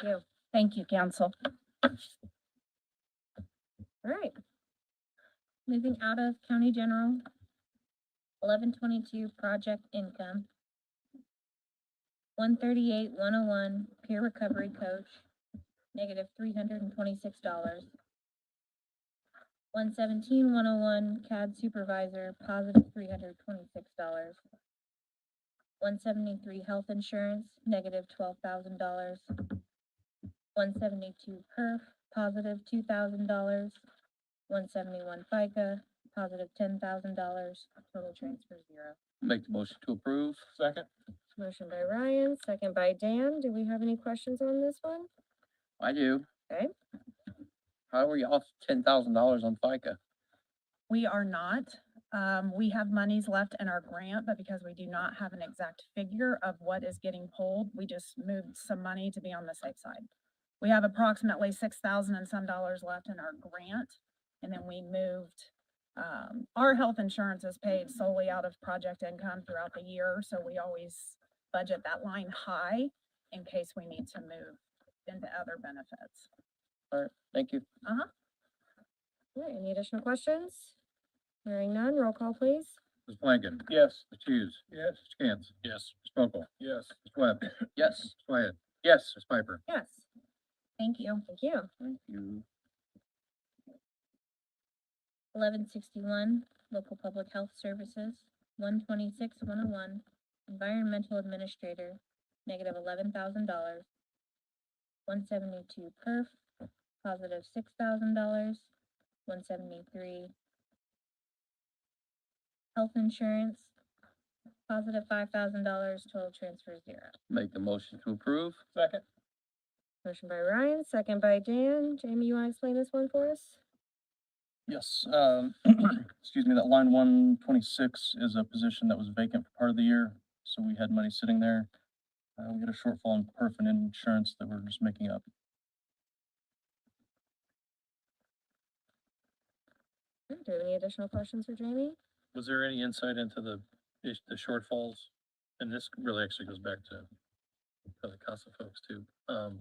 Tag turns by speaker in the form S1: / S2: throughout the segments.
S1: do. Thank you, council. All right. Moving out of county general. Eleven twenty-two project income. One thirty-eight, one oh one, peer recovery coach, negative three hundred and twenty-six dollars. One seventeen, one oh one, CAD supervisor, positive three hundred twenty-six dollars. One seventy-three, health insurance, negative twelve thousand dollars one seventy-two perf, positive two thousand dollars, one seventy-one FICA, positive ten thousand dollars, total transfer zero.
S2: Make the motion to approve. Second.
S1: Motion by Ryan, second by Dan. Do we have any questions on this one?
S2: I do.
S1: Okay.
S2: How were you off ten thousand dollars on FICA?
S3: We are not. Um, we have monies left in our grant, but because we do not have an exact figure of what is getting pulled, we just moved some money to be on the safe side. We have approximately six thousand and some dollars left in our grant, and then we moved, um, our health insurance is paid solely out of project income throughout the year, so we always budget that line high in case we need to move into other benefits.
S2: All right, thank you.
S1: All right, any additional questions? Hearing none, roll call please.
S4: Ms. Blanken?
S2: Yes.
S4: Ms. Hughes? Yes. Ms. Cantz?
S2: Yes.
S4: Ms. Mokel?
S2: Yes.
S4: Ms. Webb?
S2: Yes.
S4: Ms. Wyatt?
S2: Yes.
S4: Ms. Piper?
S1: Yes. Thank you. Thank you.
S2: Thank you.
S1: Eleven sixty-one, local public health services, one twenty-six, one oh one, environmental administrator, negative eleven thousand dollars. One seventy-two perf, positive six thousand dollars, one seventy-three. Health insurance, positive five thousand dollars, total transfer zero.
S2: Make the motion to approve. Second.
S1: Motion by Ryan, second by Dan. Jamie, you wanna explain this one for us?
S5: Yes, um, excuse me, that line one twenty-six is a position that was vacant for part of the year, so we had money sitting there. Uh, we had a shortfall in perf and insurance that we're just making up.
S1: Do we have any additional questions for Jamie?
S4: Was there any insight into the, is- the shortfalls? And this really actually goes back to to the CASA folks too. Um,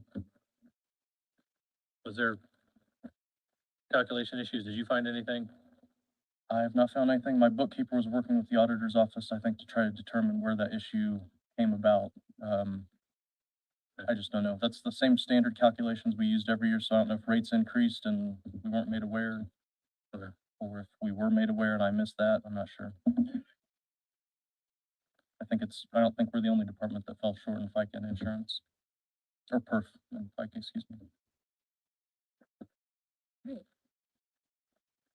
S4: Was there calculation issues? Did you find anything?
S5: I have not found anything. My bookkeeper was working with the auditor's office, I think, to try to determine where that issue came about. Um, I just don't know. That's the same standard calculations we used every year, so I don't know if rates increased and we weren't made aware.
S4: Okay.
S5: Or if we were made aware and I missed that, I'm not sure. I think it's, I don't think we're the only department that fell short in FICA and insurance. Or perf, and FICA, excuse me.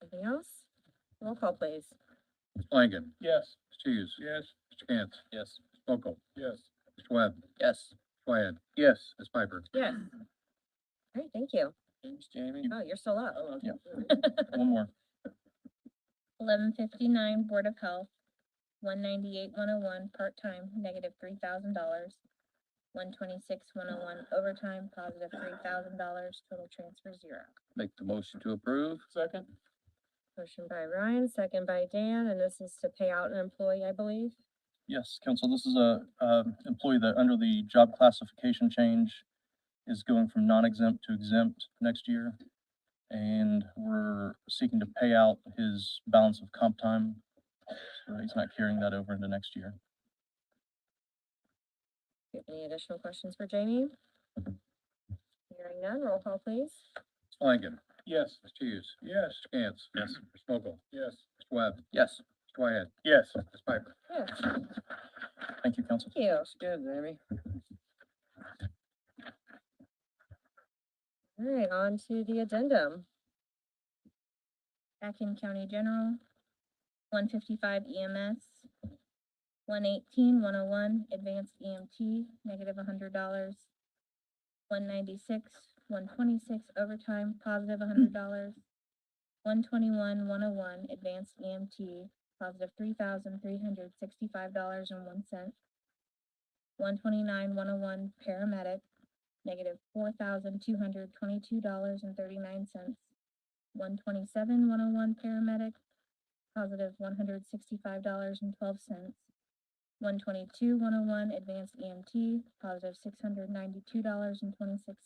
S1: Anything else? Roll call please.
S4: Ms. Blanken?
S2: Yes.
S4: Ms. Hughes? Yes. Ms. Cantz?
S2: Yes.
S4: Ms. Mokel?
S2: Yes.
S4: Ms. Webb? Ms.
S2: Yes.
S4: Wyatt?
S2: Yes.
S4: Ms. Piper?
S1: Yes. All right, thank you.
S2: Thanks, Jamie.
S1: Oh, you're still up.
S5: Yeah. One more.
S1: Eleven fifty-nine, Board of Health, one ninety-eight, one oh one, part-time, negative three thousand dollars. One twenty-six, one oh one, overtime, positive three thousand dollars, total transfer zero.
S2: Make the motion to approve. Second.
S1: Motion by Ryan, second by Dan, and this is to pay out an employee, I believe.
S5: Yes, council, this is a, um employee that under the job classification change is going from non-exempt to exempt next year. And we're seeking to pay out his balance of comp time. So he's not carrying that over into next year.
S1: Do you have Any additional questions for Jamie? Hearing none, roll call please.
S4: Ms. Blanken?
S2: Yes.
S4: Ms. Hughes?
S2: Yes.
S4: Ms. Cantz? Yes. Ms. Mokel?
S2: Yes.
S4: Ms. Webb? Ms.
S2: Yes.
S4: Wyatt?
S2: Yes.
S4: Ms. Piper?
S1: Yes,
S5: Thank you, council.
S1: thank you.
S2: That's good, Jamie.
S1: All right, on to the addendum. Akin County General, one fifty-five E EMS, 118, 101 advanced EMT, negative hundred dollars. One ninety-six, one twenty-six overtime, positive hundred dollars. One twenty-one, one oh one, advanced EMT, positive three thousand three hundred sixty-five dollars and one cent. One twenty-nine, one oh one, paramedic, negative four thousand two hundred twenty-two dollars and thirty-nine cents. One twenty-seven, one oh one paramedic, positive one hundred sixty-five dollars and twelve cents. E One twenty-two, one oh one advanced EMT, positive six hundred ninety-two dollars and twenty-six